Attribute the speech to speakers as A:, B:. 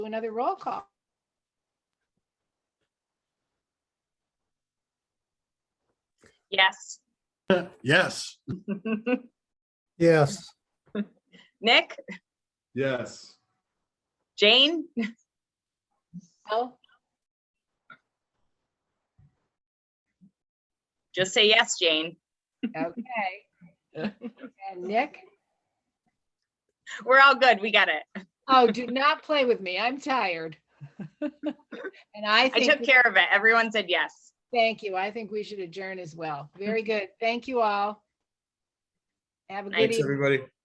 A: do another roll call.
B: Yes.
C: Yes.
D: Yes,
B: Nick,
C: Yes.
B: Jane,
A: Oh,
B: just say yes, Jane.
A: okay. And Nick?
B: We're all good. We got it.
A: Oh, do not play with me. I'm tired. And I
B: I took
A: think,
B: care of it. Everyone said yes.
A: thank you. I think we should adjourn as well. Very good. Thank you all. Have a good
B: Thanks,
D: thanks,
A: evening.
D: everybody.